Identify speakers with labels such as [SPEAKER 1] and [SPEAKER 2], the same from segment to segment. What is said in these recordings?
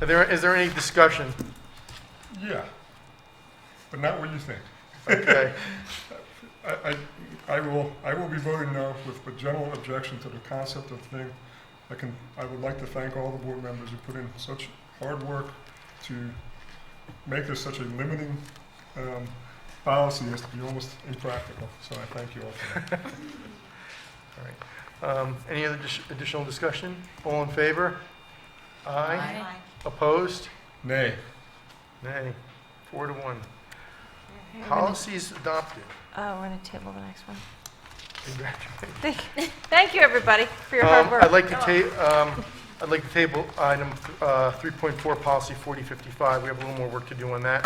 [SPEAKER 1] Are there, is there any discussion?
[SPEAKER 2] Yeah, but not what you think.
[SPEAKER 1] Okay,
[SPEAKER 2] I, I, I will, I will be voting no with a general objection to the concept of thing. I can, I would like to thank all the board members who put in such hard work to make this such a limiting, um, policy as to be almost impractical, so I thank you all for that.
[SPEAKER 1] all right. Um, Any other dis- additional discussion? All in favor? Aye. Opposed?
[SPEAKER 2] Nay,
[SPEAKER 1] Nay. Four to one. Policies adopted.
[SPEAKER 3] Oh, we're going to table the next one.
[SPEAKER 1] Congratulations.
[SPEAKER 3] Thank thank you, everybody, for your hard
[SPEAKER 1] Um,
[SPEAKER 3] work. Oh.
[SPEAKER 1] I'd like to ta, um, I'd like to table item, uh, three point four, policy forty fifty-five, we have a little more work to do on that.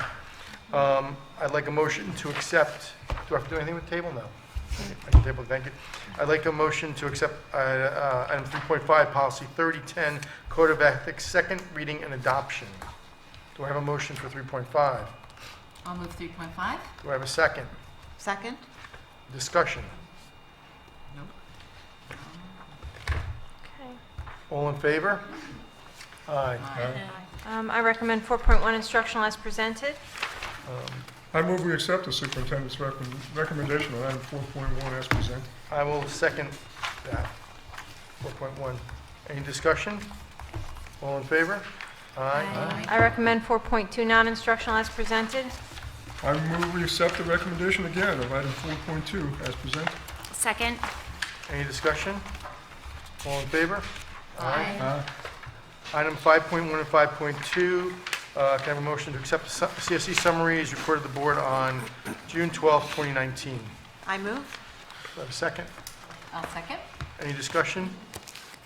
[SPEAKER 1] Um, I'd like a motion to accept, do I have to do anything with table? No. I can table, thank you. I'd like a motion to accept, uh, uh, item three point five, policy thirty ten, code of ethics, second reading and adoption. Do I have a motion for three point five?
[SPEAKER 4] I'll move 3.5.
[SPEAKER 1] Do I have a second?
[SPEAKER 4] Second?
[SPEAKER 1] Discussion?
[SPEAKER 4] Nope.
[SPEAKER 3] Okay.
[SPEAKER 1] All in favor? Aye.
[SPEAKER 2] Aye.
[SPEAKER 3] Um, I recommend 4.1 instructional as presented.
[SPEAKER 1] Um,
[SPEAKER 2] I move we accept the superintendent's recom- recommendation on item four point one as presented.
[SPEAKER 1] I will second that. 4.1. Any discussion? All in favor? Aye.
[SPEAKER 4] Aye.
[SPEAKER 3] I recommend 4.2 non-instructional as presented.
[SPEAKER 2] I move we accept the recommendation again of item four point two as presented.
[SPEAKER 5] Second.
[SPEAKER 1] Any discussion? All in favor?
[SPEAKER 4] Aye.
[SPEAKER 2] Aye.
[SPEAKER 1] Item 5.1 and 5.2, uh, can I have a motion to accept the su- CSE summary as reported to the board on June 12, 2019? Do
[SPEAKER 4] I move.
[SPEAKER 1] I have a second?
[SPEAKER 4] I'll second.
[SPEAKER 1] Any discussion?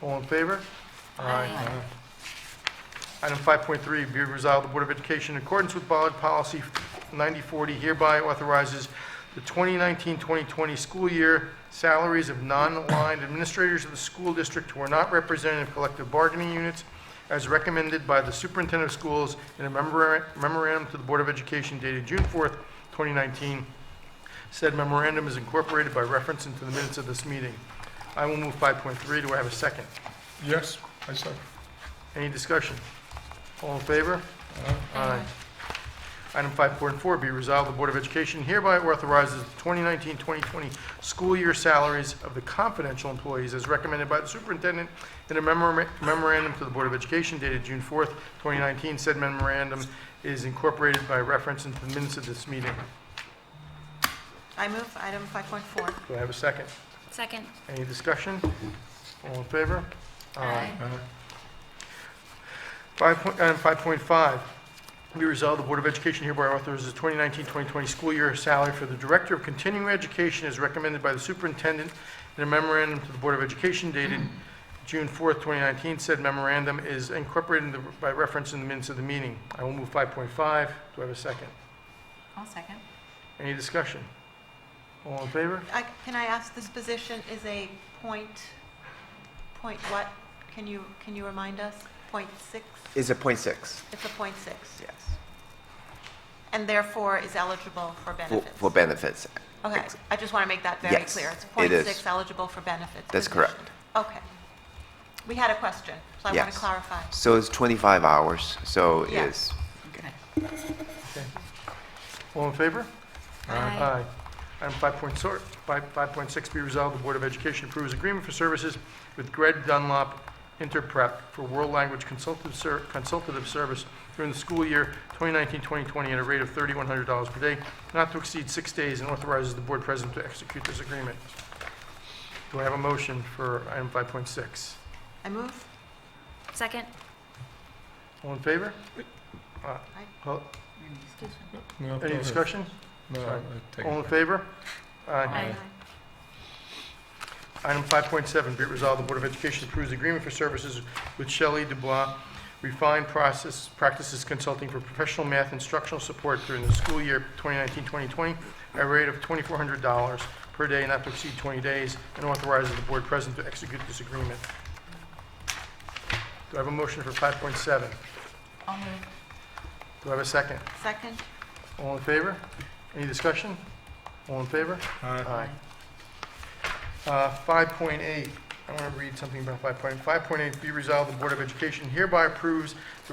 [SPEAKER 1] All in favor?
[SPEAKER 4] Aye.
[SPEAKER 1] Item 5.3, be it resolved, the Board of Education, in accordance with Ballard Policy 9040, hereby authorizes the 2019-2020 school year salaries of non-aligned administrators of the school district who are not represented in collective bargaining units as recommended by the superintendent of schools in a memora- memorandum to the Board of Education dated June 4th, 2019. Said memorandum is incorporated by reference into the minutes of this meeting. I will move 5.3. Do I have a second?
[SPEAKER 2] Yes, I second.
[SPEAKER 1] Any discussion? All in favor? Aye. Item 5.4, be resolved, the Board of Education hereby authorizes the 2019-2020 school year salaries of the confidential employees as recommended by the superintendent in a memora- memorandum to the Board of Education dated June 4th, 2019. Said memorandum is incorporated by reference into the minutes of this meeting.
[SPEAKER 4] I move item 5.4.
[SPEAKER 1] Do I have a second?
[SPEAKER 5] Second.
[SPEAKER 1] Any discussion? All in favor?
[SPEAKER 2] Aye.
[SPEAKER 1] Five point- Item 5.5, be resolved, the Board of Education hereby authorizes the 2019-2020 school year salary for the Director of Continuing Education as recommended by the Superintendent in a memorandum to the Board of Education dated June 4th, 2019. Said memorandum is incorporated in the- by reference in the minutes of the meeting. I will move 5.5. Do I have a second?
[SPEAKER 4] I'll second.
[SPEAKER 1] Any discussion? All in favor?
[SPEAKER 6] I- Can I ask, this position is a point, point what? Can you, can you remind us? Point six?
[SPEAKER 7] is a point six.
[SPEAKER 6] It's a point six,
[SPEAKER 7] Yes.
[SPEAKER 6] and therefore is eligible for
[SPEAKER 7] For,
[SPEAKER 6] benefits?
[SPEAKER 7] for benefits.
[SPEAKER 6] Okay, I just want to make that very
[SPEAKER 7] Yes,
[SPEAKER 6] clear. It's a
[SPEAKER 7] it
[SPEAKER 6] point
[SPEAKER 7] is.
[SPEAKER 6] six eligible for benefits.
[SPEAKER 7] That's
[SPEAKER 6] position.
[SPEAKER 7] correct.
[SPEAKER 6] Okay. We had a question, so I want
[SPEAKER 7] Yes.
[SPEAKER 6] to clarify.
[SPEAKER 7] So it's twenty-five hours, so
[SPEAKER 6] Yeah.
[SPEAKER 7] is,
[SPEAKER 4] Okay.
[SPEAKER 1] All in favor?
[SPEAKER 5] Aye.
[SPEAKER 1] Item 5.6, 5.6 be resolved, the Board of Education approves agreement for services with Greg Dunlop Interprep for world language consultative ser- consultative service during the school year 2019-2020 at a rate of $3,100 per day, not to exceed six days, and authorizes the board president to execute this agreement. Do I have a motion for item 5.6?
[SPEAKER 6] I move?
[SPEAKER 5] Second.
[SPEAKER 1] All in favor? Uh, oh,
[SPEAKER 4] Any discussion?
[SPEAKER 2] No, go
[SPEAKER 1] Any
[SPEAKER 2] ahead.
[SPEAKER 1] discussion?
[SPEAKER 2] No,
[SPEAKER 1] Sorry.
[SPEAKER 2] I take
[SPEAKER 1] All
[SPEAKER 2] it.
[SPEAKER 1] in favor?
[SPEAKER 2] Aye.
[SPEAKER 1] Item 5.7, be it resolved, the Board of Education approves agreement for services with Shelley Dubois Refined Process Practices Consulting for professional math instructional support during the school year 2019-2020 at a rate of $2,400 per day not to exceed 20 days, and authorizes the board president to execute this agreement. Do I have a motion for 5.7?
[SPEAKER 4] I'll move.
[SPEAKER 1] Do I have a second?
[SPEAKER 6] Second?
[SPEAKER 1] All in favor? Any discussion? All in favor?
[SPEAKER 2] Aye.
[SPEAKER 1] Aye. Uh, 5.8, I want to read something about 5.8. 5.8, be resolved, the Board of Education hereby approves the